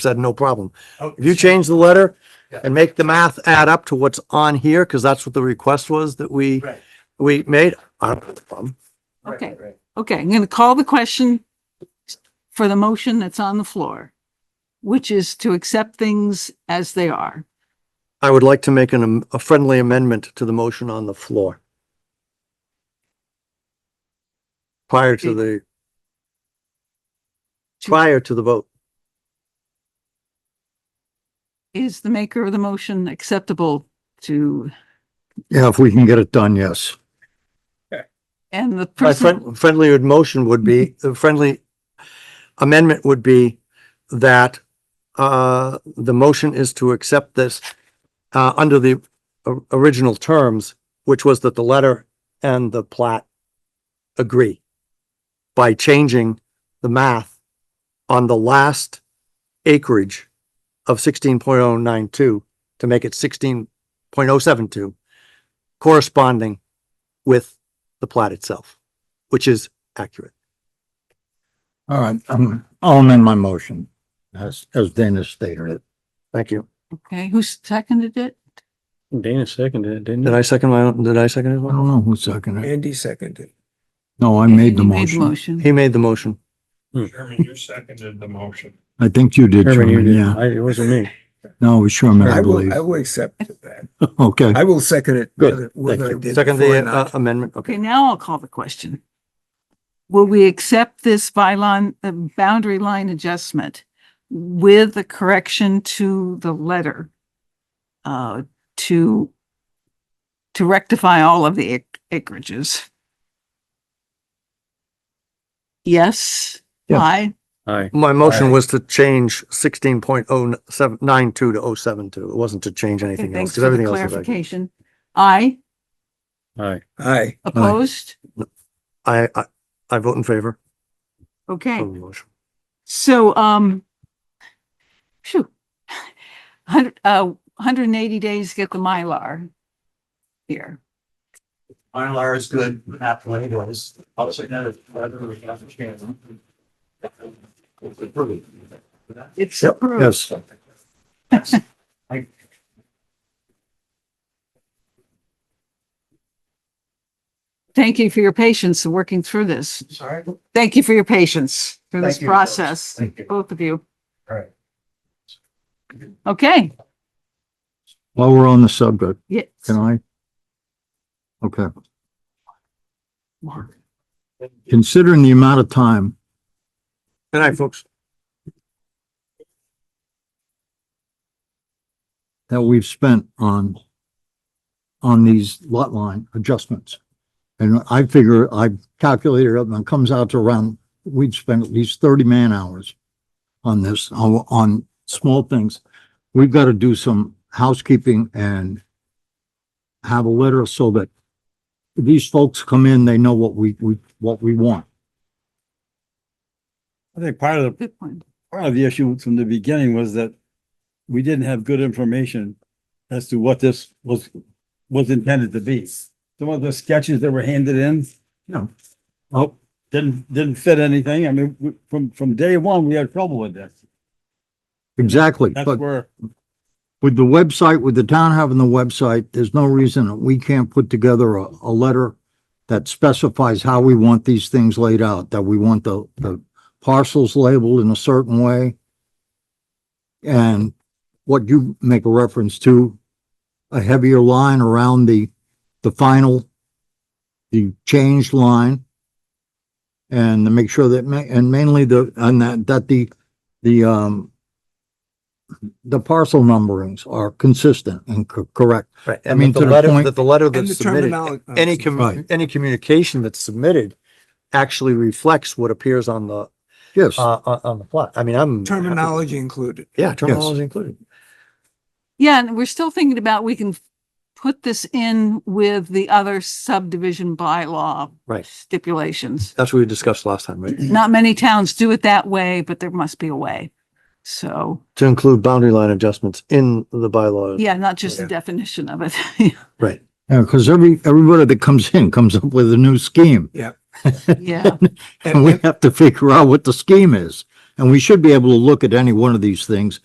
said no problem. Oh, If you change the letter Yeah. and make the math add up to what's on here, because that's what the request was that we, Right. we made, I don't have a problem. right, Okay. right. Okay, I'm going to call the question for the motion that's on the floor, which is to accept things as they are. I would like to make an, am- a friendly amendment to the motion on the floor. Prior to the prior to the vote. Is the maker of the motion acceptable to, Yeah, if we can get it done, yes. and the My person, friend, friendly motion would be, the friendly amendment would be that uh, the motion is to accept this uh, under the o- original terms, which was that the letter and the plat agree by changing the math on the last acreage of sixteen point oh nine two to make it sixteen point oh seven two corresponding with the plat itself, which is accurate. All right, I'm, I'll amend my motion as, as Dana stated it. Thank you. okay, who seconded it? Dana seconded it, didn't Did he? I second my own? Did I second it? I don't know who seconded it. Andy seconded. No, I made the You Made the motion. motion. He made the motion. Sherman, you seconded the motion. I think you did, Herman, you Sherman, did. yeah. I- It wasn't me. No, it was Sherman, I I believe. will, I will accept that. Okay, I will second it. Good. whether- whether I Thank you. did Second before or the uh, not. amendment. Okay, Okay. now I'll call the question. Will we accept this byline, the boundary line adjustment with the correction to the letter? Uh, to, to rectify all of the ac- acreages? Yes, Yeah. aye, Aye. My motion Aye. was to change sixteen point oh seven, nine two to oh seven two. It wasn't to change Okay, anything else. thanks because for the everything else is accurate. clarification. Aye, Aye. Aye, opposed, I, I, I vote in favor okay. of the motion. So, um, phew, hundred, uh, hundred and eighty days to get the Mylar here. Mylar is good, half way it was. I'll say that if whether we have a chance. It's approved. It's Yep, approved. yes, Thank you for your patience in working through this. Sorry? Thank you for your patience through this Thank you, folks. process, Thank you. both of you. All right. Okay, while we're on the subject, yes. can I? Okay. Considering the amount of time, Good night, folks. that we've spent on on these lot line adjustments. And I figure I calculated it up and it comes out to around, we'd spend at least thirty man hours on this, on, on small things. We've got to do some housekeeping and have a letter so that these folks come in, they know what we, we, what we want. I think part of the, Good point. part of the issue from the beginning was that we didn't have good information as to what this was, was intended to be. Some of the sketches that were handed in, you know, oh, didn't, didn't fit anything. I mean, we- from, from day one, we had trouble with this. Exactly. That's But where, with the website, with the town having the website, there's no reason that we can't put together a, a letter that specifies how we want these things laid out, that we want the, the parcels labeled in a certain way. And what you make a reference to, a heavier line around the, the final, the changed line. And to make sure that, ma- and mainly the, and that, that the, the, um, the parcel numberings are consistent and co- correct. Right. I And mean, that to the the letter, point- that the letter And the that's submitted, terminology. any commu Right. any communication that's submitted actually reflects what appears on the, Yes, uh, on, on the plot. I mean, I'm. happy- Terminology included. Yeah, terminology included. Yeah, and we're still thinking about, we can put this in with the other subdivision bylaw Right. stipulations. That's what we discussed last time, right? Not many towns do it that way, but there must be a way. So, To include boundary line adjustments in the bylaws. yeah, not just the Yeah. definition of it. Right. because every, everybody that comes in comes up with a new scheme. Yeah, And we have to figure out what the scheme is. And we should be able to look at any one of these things